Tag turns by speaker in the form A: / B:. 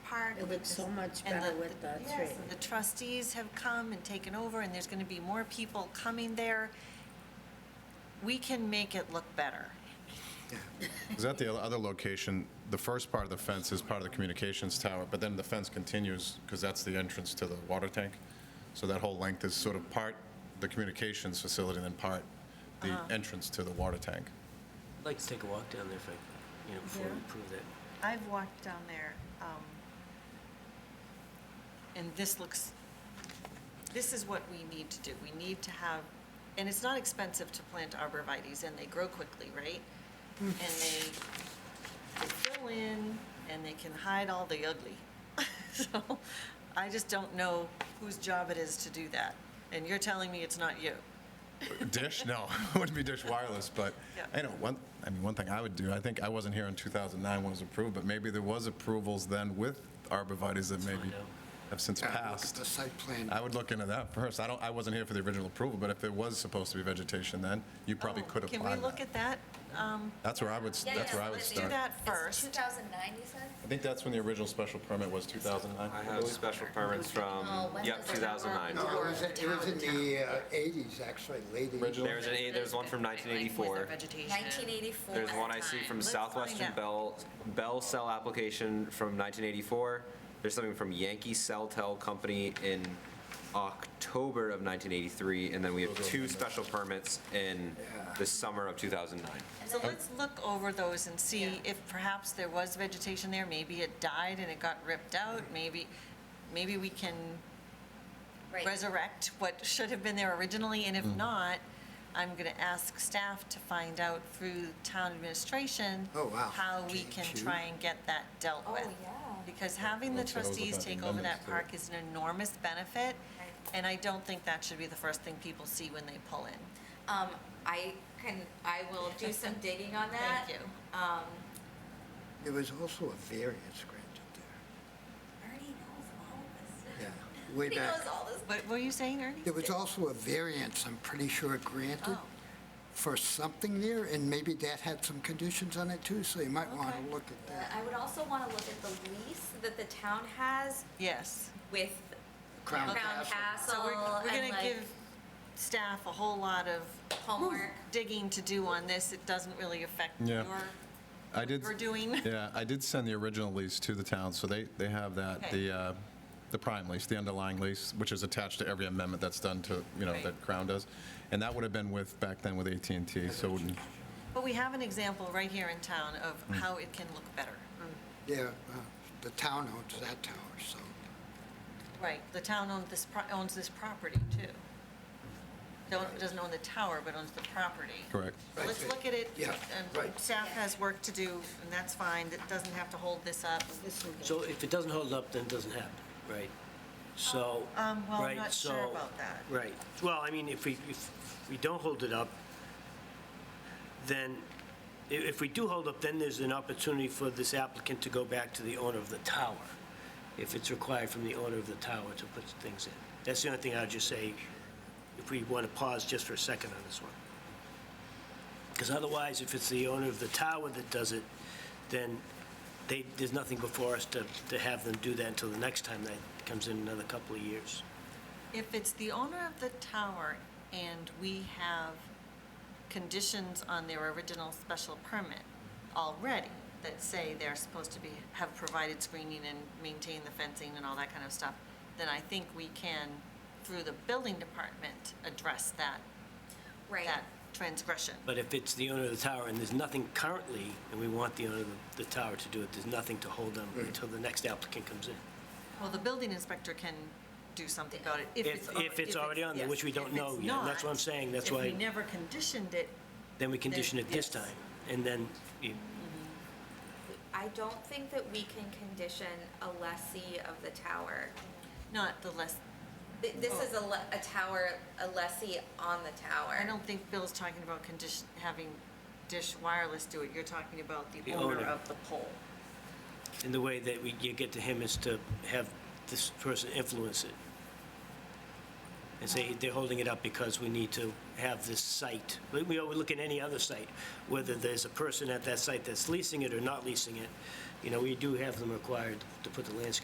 A: It looks so much
B: And
A: better with the
B: yes,
A: three.
B: The trustees have come and taken over, and there's going to be more people coming there. We can make it look better.
C: Is that the other location, the first part of the fence is part of the communications tower, but then the fence continues, because that's the entrance to the water tank? So that whole length is sort of part the communications facility, and then part the entrance to the water tank?
D: I'd like to take a walk down there if I, you know, before we approve that.
E: I've walked down there, um,
B: And this looks, this is what we need to do. We need to have, and it's not expensive to plant arborvitae's, and they grow quickly, right? And they, they fill in, and they can hide all the ugly. So I just don't know whose job it is to do that. And you're telling me it's not you.
C: Dish? No, it wouldn't be Dish Wireless, but,
B: Yeah.
C: I know, one, I mean, one thing I would do, I think, I wasn't here in 2009 when it was approved, but maybe there was approvals then with arborvitae's that maybe
D: find out.
C: have since
F: Yeah, look at
C: passed.
F: The site plan.
C: I would look into that first. I don't, I wasn't here for the original approval, but if there was supposed to be vegetation then, you probably
B: Oh,
C: could apply that.
B: Can we look at that? Um,
C: That's where I would, s-
G: Yeah,
C: that's
G: yeah,
C: where I would
G: let's do
C: start.
B: Do that
G: It's
B: first.
G: 2009, you said?
C: I think that's when the original special permit was, 2009?
H: I have special permits from,
G: Oh, when
H: yep,
G: was it?
H: 2009.
F: No, it was, it was in the uh, 80s, actually, late 80s.
C: Original?
H: There's an, eight- there's one from 1984.
G: 1984.
H: There's one I see from
B: Let's
H: Southwestern
B: find
H: Bell, Bell Cell application from 1984. There's something from Yankee Cell Tel Company in October of 1983, and then we have two special permits in the summer of 2009.
B: So let's look over those and see if perhaps there was vegetation there, maybe it died and it got ripped out, maybe, maybe we can
G: Right.
B: resurrect what should have been there originally, and if not, I'm going to ask staff to find out through town administration.
F: Oh, wow.
B: How we
F: Can't
B: can
F: you?
B: try and get that dealt
G: Oh,
B: with.
G: yeah.
B: Because having the
C: That's what I was
B: trustees
C: looking at,
B: take
C: the
B: over that
C: amendments to it.
B: park is an enormous benefit,
G: Right.
B: and I don't think that should be the first thing people see when they pull in.
G: Um, I can, I will do some digging on that.
B: Thank you.
F: There was also a variance granted
G: Ernie knows all
F: there, yeah, way
G: this. He knows
F: back.
G: all this.
B: What were you saying, Ernie?
F: There was also a variance, I'm pretty sure, granted
B: Oh.
F: for something there, and maybe that had some conditions on it too, so you might want
B: Okay.
F: to look at
G: But
F: that.
G: I would also want to look at the lease that the town has
B: Yes.
G: with
F: Crown
G: Crown
F: Castle.
G: Castle.
B: So we're, we're
G: and
B: gonna
G: like
B: give staff a whole lot of
G: Homework.
B: digging to do on this. It doesn't really affect
C: Yeah.
B: your,
C: I did,
B: we're doing.
C: yeah, I did send the original lease to the town, so they, they have that,
B: Okay.
C: the, uh, the prime lease, the underlying lease, which is attached to every amendment that's done to, you know,
B: Right.
C: that Crown does. And that would have been with, back then with at and T. so it wouldn't-
B: But we have an example right here in town
C: Mm.
B: of how it can look better.
F: Yeah, uh, the town owns that tower, so.
B: Right, the town owns this, pro- owns this property too. Don't, doesn't own the tower, but owns the property.
C: correct.
B: So Let's look at it.
F: Yeah,
B: and
F: right.
B: Staff has work to do, and that's fine. It doesn't have to hold this up.
D: So if it doesn't hold up, then it doesn't happen, right? So,
B: Um, well, I'm
D: right,
B: not sure
D: so-
B: about that.
D: Right. Well, I mean, if we, if we don't hold it up, then, i- if we do hold up, then there's an opportunity for this applicant to go back to the owner of the tower, if it's required from the owner of the tower to put things in. That's the only thing I'd just say, if we want to pause just for a second on this one. Because otherwise, if it's the owner of the tower that does it, then they, there's nothing before us to, to have them do that until the next time that comes in another couple of years.
B: If it's the owner of the tower and we have conditions on their original special permit already that say they're supposed to be, have provided screening and maintain the fencing and all that kind of stuff, then I think we can, through the building department, address that,
G: Right.
B: that transgression.
D: But if it's the owner of the tower and there's nothing currently, and we want the owner of the tower to do it, there's nothing to hold them until the next applicant comes in.
B: Well, the building inspector can do something about it if it's.
D: If, if it's already on there, which we
B: yes.
D: don't
B: If
D: know
B: it's
D: yet, and
B: not,
D: that's what I'm saying, that's
B: If we
D: why,
B: never conditioned it,
D: then we condition
B: then-
D: it this
B: yes.
D: time. And then, you-
G: I don't think that we can condition a lessee of the tower.
B: not the less,
G: Th- This is a, le- a tower, a lessee on the tower.
B: I don't think Bill's talking about condition, having Dish Wireless do it. You're talking about the
D: The
B: owner
D: owner.
B: of the pole.
D: and the way that we, you get to him is to have this person influence it. And say, they're holding it up because we need to have this site. We, we always look at any other site, whether there's a person at that site that's leasing it or not leasing it. You know, we do have them required to put the landscape